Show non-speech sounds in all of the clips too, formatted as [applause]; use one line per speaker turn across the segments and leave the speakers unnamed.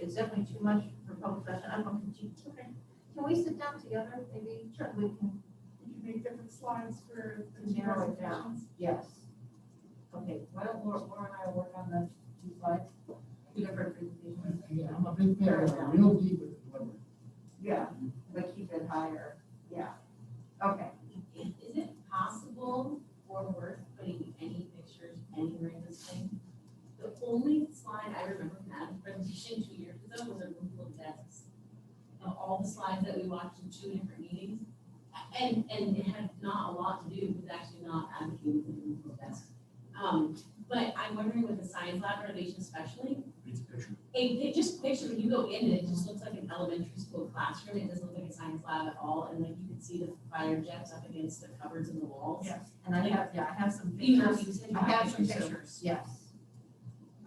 it's definitely too much for public session, I'm going to,
Okay.
can we sit down together, maybe? Sure. We can,
Would you make different slides for the
To
two
narrow it down.
presentations?
yes. Okay, why don't Laura, Laura and I work on the two slides, two different presentations?
Yeah, I'm a big fan of real deep with the delivery.
Yeah, but keep it higher, yeah, okay.
Is it possible or worth putting any pictures anywhere in this thing? The only slide I remember from that presentation two years ago was a room full of desks. Of all the slides that we watched in two different meetings, and, and it had not a lot to do with actually not advocating for the room full of desks. Um, but I'm wondering with the science lab renovation especially,
It's a picture.
it, it just picture when you go in, it just looks like an elementary school classroom, it doesn't look like a science lab at all, and like you can see the fire jets up against the cupboards and the walls.
Yeah.
And I have, yeah, I have some
Even
pictures.
if you said you
I have
had
some
pictures.
pictures, yes.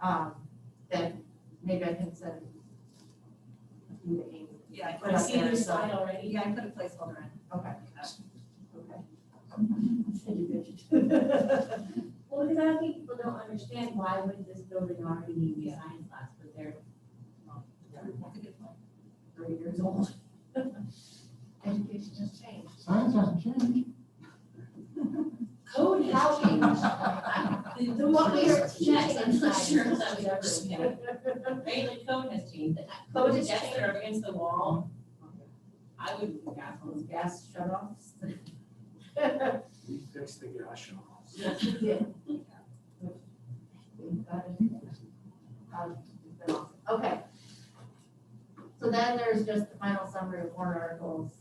Um, that maybe I can send. you to Amy.
Yeah, I
Put
can
up
see
there,
your
so-
slide already.
Yeah, I uh, put a placeholder in. Okay. [laughs] Okay. Send you
Well, because I don't think people don't understand why would this building already need a science lab for their.
Three years old. Education has changed.
Science hasn't changed.
Code has [laughs] changed. The- The
What
one
we
we
are
are jets, I'm not
teaching.
sure that we ever, yeah, right, like code has changed, the
Code
code
has
jets that are up against the wall. I would, yeah, those
Gas shut-offs.
We fixed the gas shelves.
Okay. So then there's just the final summary of warrant articles.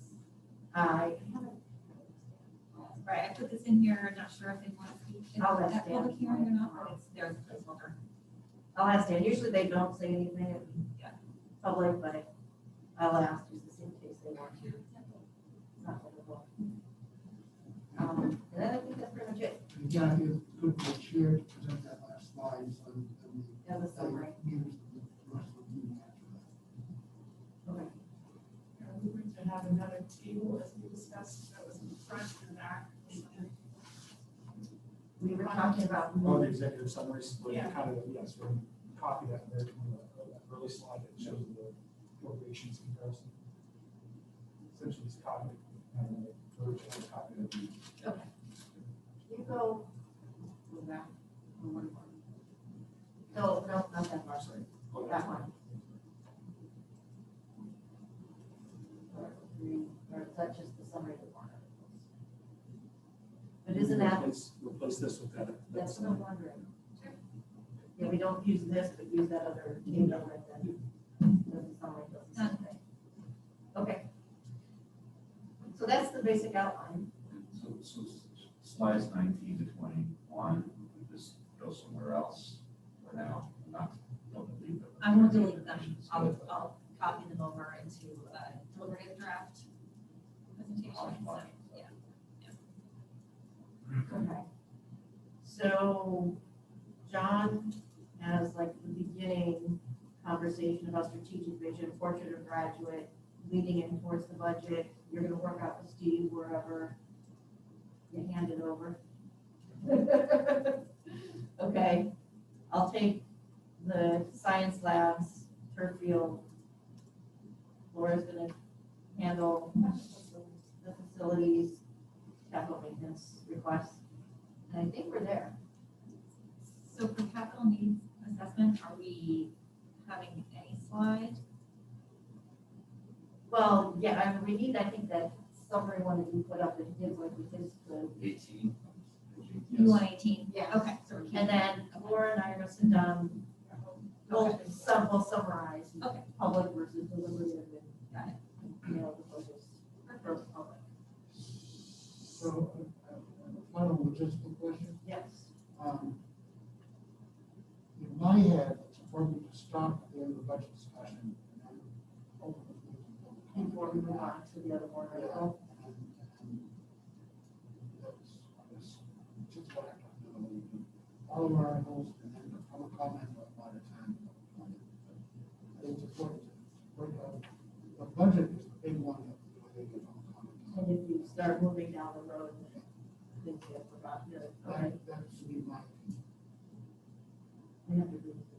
I haven't.
Right, I put this in here, I'm not sure if they want to be in
I'll let
that
Stan.
public hearing or not, but it's their placeholder.
I'll ask Dan, usually they don't say anything in
Yeah.
public, but I'll ask just in case they want to. It's not difficult. Um, and then I think that's pretty much it,
And Kathy, it's good for the chair to present that last slide, so that we.
that was summary.
Gives the rest of the meeting after
Are we going to have another table as we discussed that was in front and back?
We were talking about.
Oh, the executive summaries, like
Yeah.
kind of, yes, we copy that there from the that early slide that shows the appropriations comparison. Essentially, it's copied. and then they merge and copy it.
You go. Go back. Go one more. No, no, not that
I'm sorry.
one, that one. Or three, or that's just the summary of the warrant articles. But isn't that,
Replace- Replace this with that.
that's what I'm wondering. Yeah, we don't use this, but use that other table and then doesn't sound like those. are the same thing. Okay. So that's the basic outline.
So, so s- slides nineteen to twenty-one, we just go somewhere else for now, not, don't leave them.
I won't delete them, I'll, I'll copy them over into a deliberative draft presentation, so, yeah.
Okay. So John has like the beginning conversation about strategic vision, fortunate of graduate, leading in towards the budget. You're gonna work out with Steve wherever you hand it over. [laughs] Okay, I'll take the science labs, turf field. Laura's gonna handle the facilities, capital maintenance requests. And I think we're there.
So for capital needs assessment, are we having any slide?
Well, yeah, I mean, we need, I think that summary one that you put up that he did like with his, the.
Eighteen?
You want eighteen?
Yeah.
Okay, so we're keeping.
And then Laura and I are gonna sit down, we'll,
Okay.
sum, we'll summarize.
Okay.
Public versus deliberative
Got
and, you know, the focus for public.
that. So, uh, uh, final logistical question,
Yes.
um, in my head, it's appropriate to stop at the end of the budget discussion. and then open the meeting.
Before we move on to the other one,
Yeah.
article.
That's- that's just what I talked about. All of our articles and then the public comment a lot of time. I think It's important, to- but, uh, the budget is the big one that you know, they get public comment.
And if you start moving down the road, then things get forgotten, okay?
That, that should be my opinion.
I have to agree with